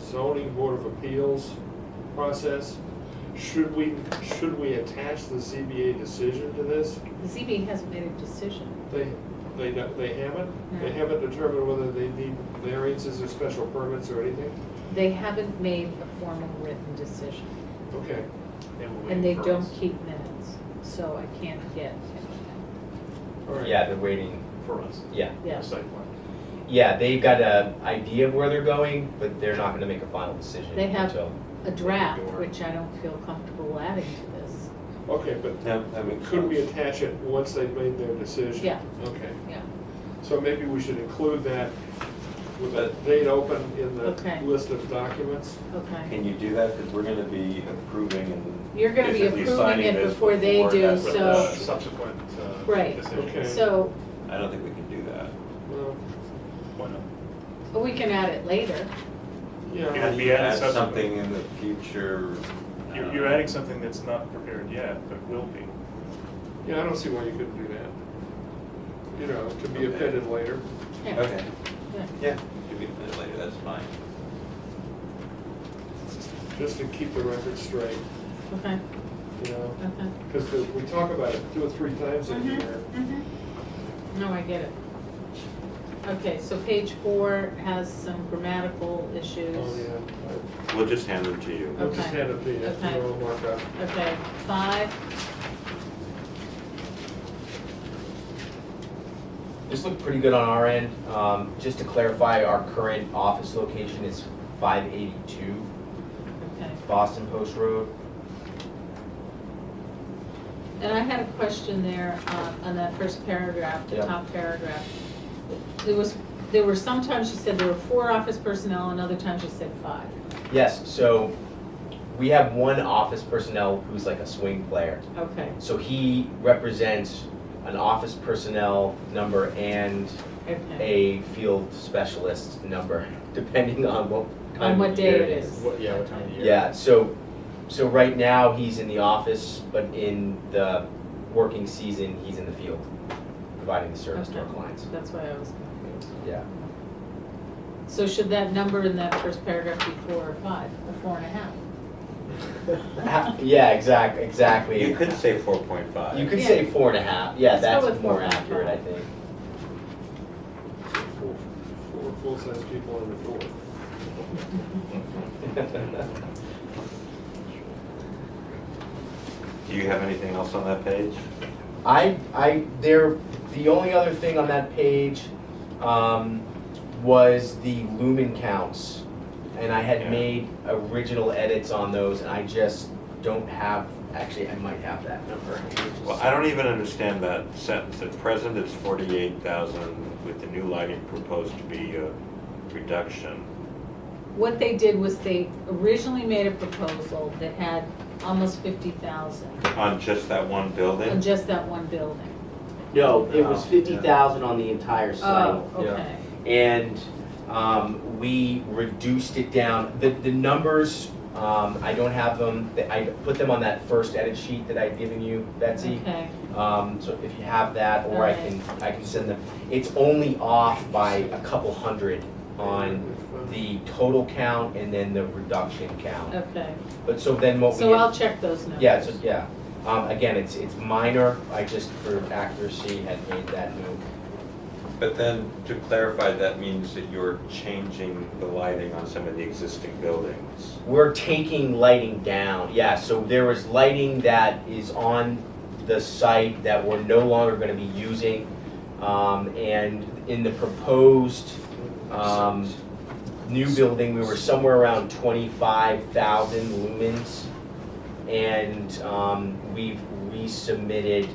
zoning board of appeals process. Should we, should we attach the ZBA decision to this? The ZBA hasn't made a decision. They, they, don't- they haven't? They No. haven't determined whether they need variances or special permits or anything? They haven't made a formal written decision, Okay. and they don't keep minutes, so I can't get anything. All right. Yeah, they're waiting, for us. yeah. Yeah. The site plan. Yeah, they've got an idea of where they're going, but they're not gonna make a final decision They have until. A draft, Door. which I don't feel comfortable adding to this. Okay, but Yeah, that makes could we sense. attach it once they've made their decision? Yeah. Okay, Yeah. so maybe we should include that with a But- date open in the Okay. list of documents? Okay. Can you do that, because we're gonna be approving and. You're gonna be basically approving signing it this before they do, that's what so- the- Subsequent. uh, Right. decision. Okay. So, I don't think we can do that. Well, Why not? we can add it later. Yeah. yeah, It'd be You added add subsequent. Something in the future. You're, um, you're adding something that's not prepared yet, but will be. yeah, I don't see why you couldn't do that. You know, it could be Okay. appended later. Yeah. Okay, Yeah. yeah, could be put later, that's fine. just to keep the record straight, Okay, you know? okay. Because we talk about it two or three times a year. Mm-hmm. No, I get it. Okay, so page four has some grammatical issues. Oh, yeah. We'll just hand them to you. I- I'll just Okay. hand it to you, Okay. you know, mark up. Okay, five, This looked pretty good on our end. Um, just to clarify, our current office location is five eighty-two okay. Boston Post Road. And I had a question there uh, on that first paragraph, the Yeah. top paragraph. There was, there were, sometimes you said there were four office personnel and other times you said five. Yes, so we have one office personnel who's like a swing player. Okay, So he represents an office personnel number and okay. a field specialist number, depending on what time On what of day year it is. What, yeah, what time of year? Yeah, so, so right now, he's in the office, but in the working season, he's in the field, providing the service to our Okay. clients. That's why I was confused. Yeah, So should that number in that first paragraph be four or five, or four and a half? Ha- yeah, exact, exactly. You could say four point five. You could Yeah. say four and a half, yeah, Let's go that's with four more and a half. accurate, I think. Four, four full-size people on the board. Do you have anything else on that page? I, I, there, the only other thing on that page, um, was the lumen counts. And I Yeah. had made original edits on those, and I just don't have, actually, I might have that number. Well, I don't even understand that sentence. At present, it's forty-eight thousand, with the new lighting proposed to be a reduction. What they did was they originally made a proposal that had almost fifty thousand On just that one on building? just that one building. No, it was No. fifty thousand on the entire site. Oh, okay, And um, we reduced it down. The, the numbers, um, I don't have them, Th- I put them on that first edit sheet that I'd given you, Betsy. okay, Um, So if you have that, or I can, I can send them. It's only off by a couple hundred on the total count and then the reduction count. okay. But so then what we. So I'll check those numbers. Yeah, so, yeah. Um, Again, it's, it's minor. I just, for accuracy, had made that move. But then, to clarify, that means that you're changing the lighting on some of the existing buildings. We're taking lighting down, yeah, so there was lighting that is on the site that we're no longer gonna be using. Um, and in the proposed, um, new building, we were somewhere around twenty-five thousand lumens. And, um, we've resubmitted,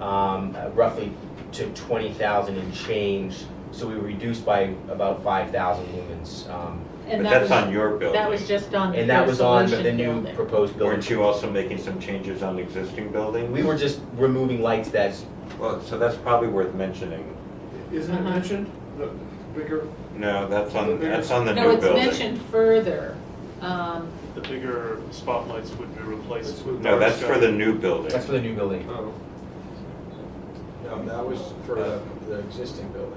um, roughly to twenty thousand and change. So we reduced by about five thousand lumens, um, And that But that's was- on your building. That was just on the and that was on the Resolution new building. proposed building. Weren't you also making some changes on existing buildings? We were just removing lights that, Well, so that's probably worth mentioning. Isn't it Uh-huh. mentioned, the bigger, No, that's on, that's on the No, new it's building. mentioned further, um, The bigger spotlights would be replaced with. No, that's for the dark new building. that's for the new building. oh, No, that was for the, the existing building.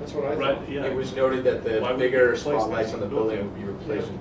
that's what I sky. thought. Right, yeah. It was noted that Why the would we bigger replace that spotlights on the building? building would be replaced with